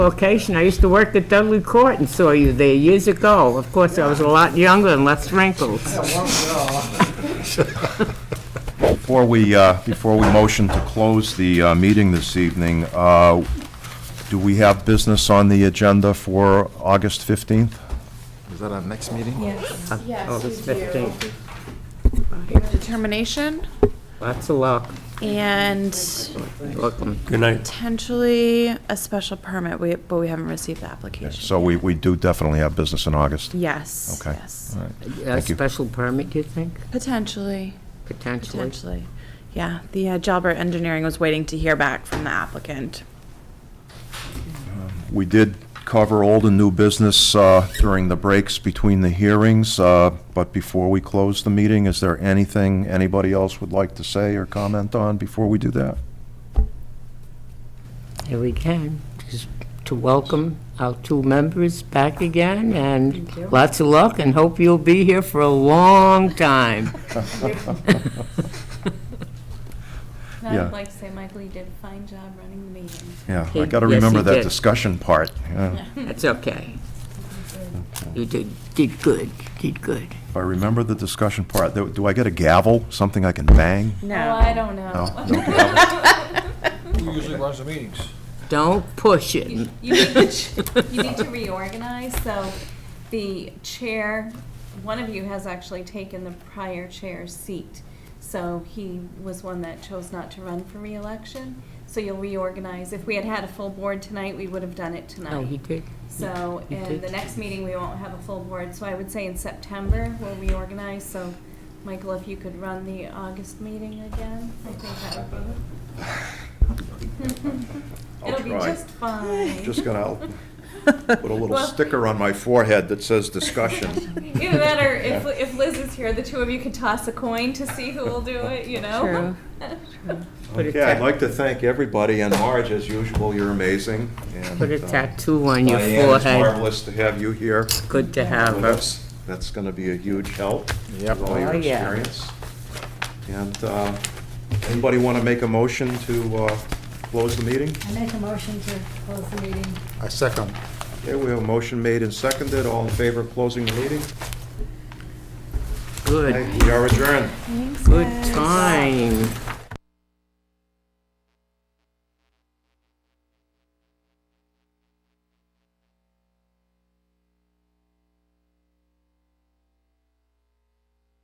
location. I used to work at Dudley Court and saw you there years ago. Of course, I was a lot younger and less wrinkled. Before we, uh, before we motion to close the uh, meeting this evening, uh, do we have business on the agenda for August 15th? Is that our next meeting? Yes, yes, August we do. 15th. Determination Lots of luck. um, and Welcome. Good night. potentially a special permit, we, but we haven't received the application. So we, we do definitely have business in August. Yes, Okay. yes, All right. A Thank you. special permit, you think, potentially, potentially? potentially. Yeah, the uh, Jalbert Engineering was waiting to hear back from the applicant. We did cover old and new business uh, during the breaks between the hearings, uh, but before we close the meeting, is there anything anybody else would like to say or comment on before we do that? Here we can, just to welcome our two members back again, and lots of luck, and hope you'll be here for a long time. And I Yeah. would like to say Michael, you did a fine job running the meeting. Yeah, I He- got to yes, remember he that did. discussion part. yeah. That's okay. You did, did good, did good. If I remember the discussion part, do do I get a gavel, something I can bang? Oh, I don't know. No? No gavel? Who usually runs the meetings? Don't push it. You you need to you need to reorganize, so the chair, one of you has actually taken the prior chair's seat. So he was one that chose not to run for reelection, so you'll reorganize. If we had had a full board tonight, we would have done it tonight. No, he did. So, You and did. the next meeting, we won't have a full board, so I would say in September, we'll reorganize, so, Michael, if you could run the August meeting again, I think that would be. It'll be try. just fine. Just gonna put a little sticker on my forehead that says discussion. Either that, or if, if Liz is here, the two of you could toss a coin to see who will do it, you know? Put a Okay, I'd tat- like to thank everybody, and Marge, as usual, you're amazing. and, Put a uh, tattoo on your Diane, it's forehead. marvelous to have you here. Good to have her. That's, that's gonna be a huge help. Yep. With all your Oh, yeah. experience. And uh, anybody want to make a motion to uh, close the meeting? I make a motion to close the meeting. I second. Okay, we have a motion made and seconded. All in favor of closing the meeting? Good, Okay, We are adjourned. good time.